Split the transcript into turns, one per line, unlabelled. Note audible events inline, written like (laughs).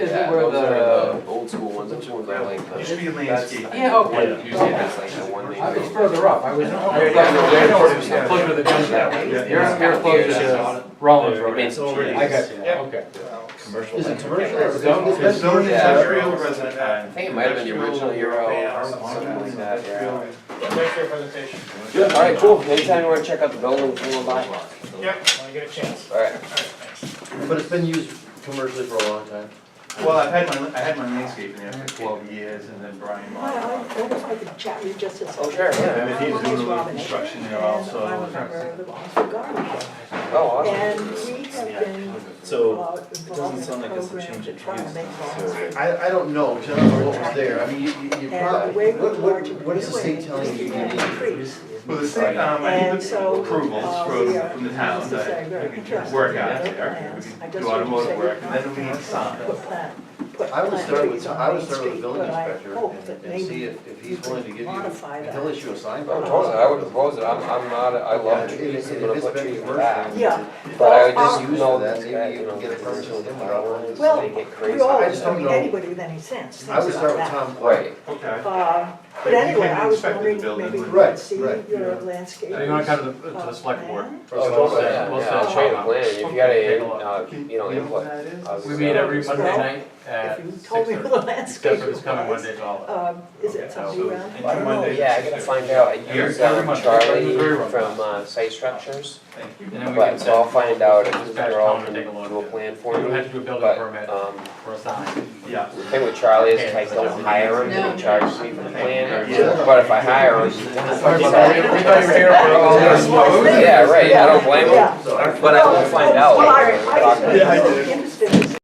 Is
Yeah,
where
those are
the,
the old school ones, which ones are like
Used to
the.
be landscape.
yeah, okay.
One, you see, that's like the one
I was
they.
further up, I was.
Okay.
Yeah, Closer to the junkyard.
Yeah.
You're, you're closer to Rollins Road.
It's
already-
I got you, okay.
Commercial.
Is it commercial or zoned
It's
residential?
zoned
Yeah.
industrial resident ag.
I think it might have been the original Euro, or something like that, yeah. Alright, cool, anytime you wanna check out the building, come on by.
Yep.
When I get a chance.
Alright,
But it's been used commercially for a long time.
Well, I've had my, I had my landscape in there for twelve years and then Brian
Well, I
Monahan.
always like to chat with Justice.
Oh, sure, yeah.
And then he's doing a little construction there also.
And I'm a member of the Boston Garden Club.
oh, awesome.
And we have been.
So,
uh,
it doesn't sound like it's a change in
involved in trying to
use,
make
so-
laws.
I, I don't know, because I don't know what was there, I mean, you, you, you
And the
probably,
way we're
what, what,
largely
what is the state
doing
telling
is
you you
to
need?
increase.
Well, the state, um, I
And
need the
so,
approvals
uh, we
from,
are-
from the town,
this is a
that
very
we can
interesting
work out
development
there,
plans. I
we can
just
do
want to
automotive
say
work,
we're
and then we need
not
sign.
Put plant, put
I would
plant
start
trees
with,
on
I would
Main
start with the
Street,
building
oh, but I
inspector
hope
and,
that
and see
maybe
if, if he's willing to give you,
modify that.
he'll issue a sign by.
I would propose it, Oh, I would propose it, I'm, I'm not, I love
Yeah,
trees, I'm
if- if
gonna
it's
put
been
trees
commercial,
back.
Yeah.
But I would
Well,
just
used
know
for that,
that,
maybe
you
you
know,
can get a
this
permit
is,
from them,
I want this
Well,
to make it
We
crazy.
all,
I
I
just don't
mean,
know.
anybody with any sense
I would
thinks
start with
about that.
Tom Clark.
Right,
Okay.
Um,
But
But
you
anyway,
can
I was
inspect the
wondering,
building
maybe you
when-
could
Right,
see
right.
your landscape.
Yeah,
You're gonna come to the, to the select board.
plan.
oh,
Or something.
totally, yeah,
We'll
yeah,
set
change
up.
the plan, if you got a, uh, you know,
You know
input.
what that is?
I was-
We meet every Monday night (laughs) at
If you
six
told me
thirty.
what the landscape
Except for this
was.
coming Monday, it's all.
Um, is
Okay,
it something
so-
around?
I don't know.
Oh, Yeah, I gotta find out, I
Every-
use
every
um,
month.
Charlie
Very well.
from uh, Site Structures,
Thank you.
And then we can
but, so I'll
set,
find out if
Dispatch
they're all
Tom to
gonna
take a look.
do a plan
we
for
don't
me,
have to do a building
but,
permit
uh,
um,
for a sign.
Yeah.
the thing with Charlie is if I don't hire him,
No.
he'll charge me for the plan,
Yeah.
but if I hire him.
Sorry about that. We we thought you were here for
(laughs)
all this.
Yeah, right, I don't blame him,
Yeah.
So I-
but I will find
Oh, Well, I-
out.
I just-
Yeah, I did.
You